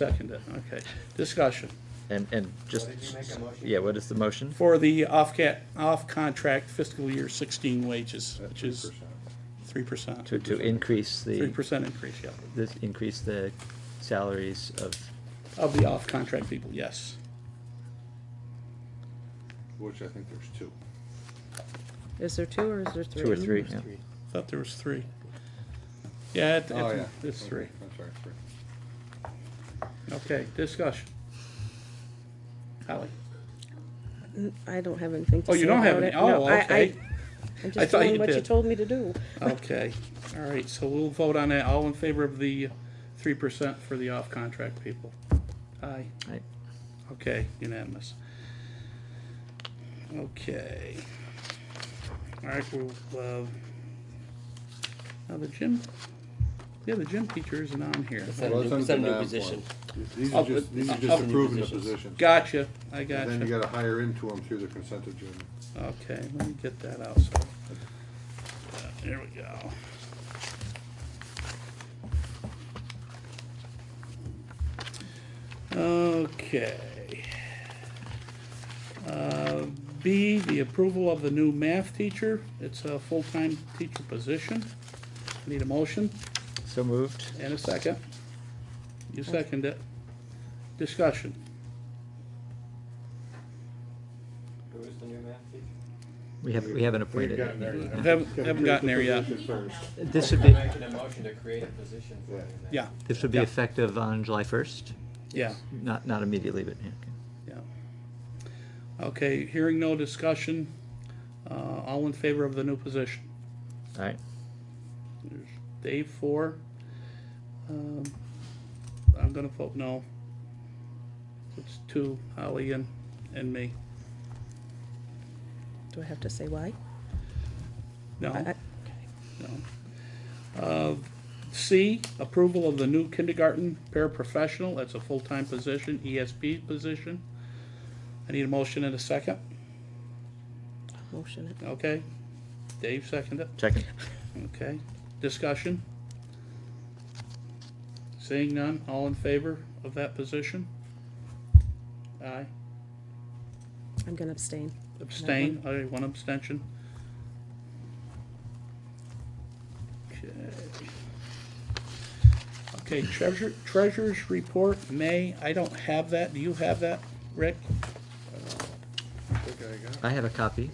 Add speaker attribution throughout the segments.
Speaker 1: seconded, okay. Discussion.
Speaker 2: And, and just,
Speaker 3: Did you make a motion?
Speaker 2: yeah, what is the motion?
Speaker 1: For the off-ca, off-contract fiscal year sixteen wages, which is three percent.
Speaker 2: To, to increase
Speaker 1: Three
Speaker 2: the,
Speaker 1: percent increase, yeah,
Speaker 2: this, increase the salaries of,
Speaker 1: of the off-contract people, yes.
Speaker 4: Which I think there's two.
Speaker 5: Is there two or is there three?
Speaker 2: Two or three. Yeah.
Speaker 1: Thought there was three. Yeah, it,
Speaker 4: Oh,
Speaker 1: it,
Speaker 4: yeah.
Speaker 1: it's three.
Speaker 4: I'm sorry, three.
Speaker 1: Okay, discussion. Holly?
Speaker 5: I don't have anything to
Speaker 1: Oh,
Speaker 5: say
Speaker 1: you don't have
Speaker 5: about
Speaker 1: any,
Speaker 5: it. No,
Speaker 1: oh,
Speaker 5: I- I-
Speaker 1: okay,
Speaker 5: I'm
Speaker 1: I
Speaker 5: just
Speaker 1: thought you
Speaker 5: doing what you
Speaker 1: did.
Speaker 5: told me to do.
Speaker 1: okay. All right, so we'll vote on that. All in favor of the three percent for the off-contract people? Aye.
Speaker 2: Aye.
Speaker 1: Okay, unanimous. Okay. All right, we'll, uh, now the gym, yeah, the gym teacher isn't on here.
Speaker 6: It's a
Speaker 4: Well,
Speaker 6: new-
Speaker 4: it's
Speaker 6: it's
Speaker 4: under
Speaker 6: a new
Speaker 4: the NAV
Speaker 6: position.
Speaker 4: form. These
Speaker 1: Oh,
Speaker 4: are just,
Speaker 1: but-
Speaker 4: these
Speaker 1: oh,
Speaker 4: are
Speaker 1: oh.
Speaker 4: just approving the position.
Speaker 1: Gotcha, I
Speaker 4: And Then you
Speaker 1: gotcha.
Speaker 4: gotta hire into them through the consent agenda.
Speaker 1: Okay, let me get that out, so. There we go. Okay. Uh, B, the approval of the new math teacher. It's a full-time teacher position. Need a motion
Speaker 2: so moved.
Speaker 1: and a second. You second it. Discussion.
Speaker 3: Who is the new math teacher?
Speaker 2: We haven't, we haven't appointed.
Speaker 4: gotten there
Speaker 2: it.
Speaker 4: yet.
Speaker 2: No.
Speaker 1: Haven't, haven't gotten there yet.
Speaker 2: This would be,
Speaker 3: Making a motion to create a position for the new math.
Speaker 1: Yeah,
Speaker 2: this would be
Speaker 1: Yeah.
Speaker 2: effective on July first,
Speaker 1: yeah.
Speaker 2: not, not immediately, but, yeah, okay.
Speaker 1: Yeah. Okay, hearing no discussion, uh, all in favor of the new position?
Speaker 2: all right.
Speaker 1: There's Dave four. Um, I'm gonna vote no. It's two, Holly and, and me.
Speaker 5: Do I have to say why?
Speaker 1: No,
Speaker 5: I- I-
Speaker 1: no. Uh, C, approval of the new kindergarten paraprofessional, that's a full-time position, ESP position. I need a motion and a second,
Speaker 5: Motion it.
Speaker 1: okay? Dave seconded.
Speaker 2: Second,
Speaker 1: Okay, discussion? Seeing none, all in favor of that position? Aye,
Speaker 5: I'm gonna abstain.
Speaker 1: abstain, aye, one abstention. Okay. Okay, treasure, treasurer's report, May, I don't have that, do you have that, Rick?
Speaker 4: I think I got it.
Speaker 2: I have a copy.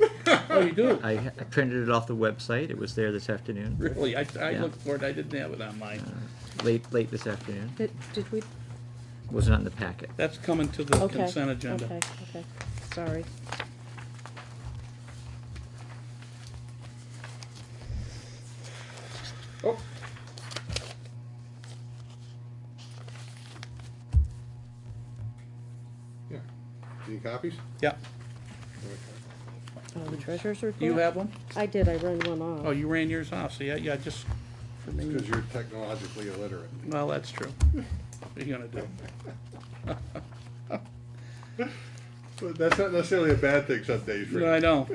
Speaker 1: Oh, you do,
Speaker 2: I, I printed it off the website. It was there this afternoon,
Speaker 1: really, I, I
Speaker 2: Yeah.
Speaker 1: looked for it, I didn't have it on mine,
Speaker 2: late, late this afternoon.
Speaker 5: Did, did we?
Speaker 2: Was not in the packet.
Speaker 1: that's coming to the
Speaker 5: Okay.
Speaker 1: consent agenda.
Speaker 5: Okay, okay. Sorry.
Speaker 4: Oh, Yeah. Any copies?
Speaker 1: Yeah,
Speaker 4: Okay.
Speaker 5: Oh, the treasurer's report?
Speaker 1: do you have one?
Speaker 5: I did, I ran one
Speaker 1: Oh,
Speaker 5: off.
Speaker 1: you ran yours off, so yeah, yeah, just,
Speaker 4: Because you're technologically illiterate.
Speaker 1: well, that's true. What are you gonna do?
Speaker 4: But that's not necessarily a bad thing some days,
Speaker 1: No, I
Speaker 4: Rick.
Speaker 1: know,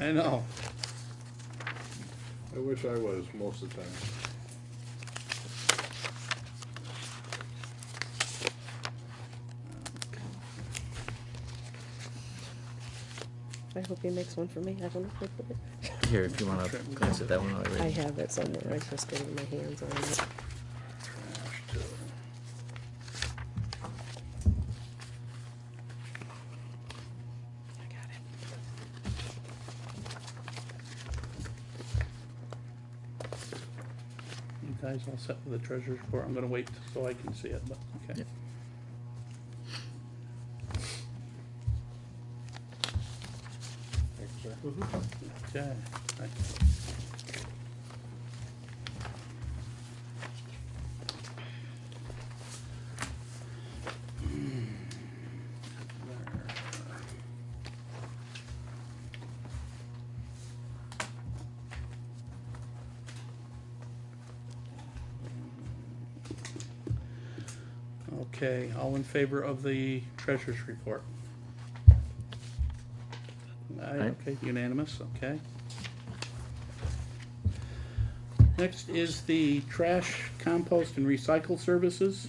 Speaker 1: I know.
Speaker 4: I wish I was most of the time.
Speaker 5: I hope he makes one for me. I don't know if I put it.
Speaker 2: Here, if you wanna glance at that one already.
Speaker 5: I have it somewhere. I just didn't get my hands on it. I got it.
Speaker 1: You guys all set with the treasurer's report? I'm gonna wait so I can see it, but, okay.
Speaker 2: Yep.
Speaker 4: Thank you, sir.
Speaker 1: Okay. right. Okay, all in favor of the treasurer's report? Aye,
Speaker 2: Aye.
Speaker 1: okay, unanimous, okay. Next is the trash compost and recycle services.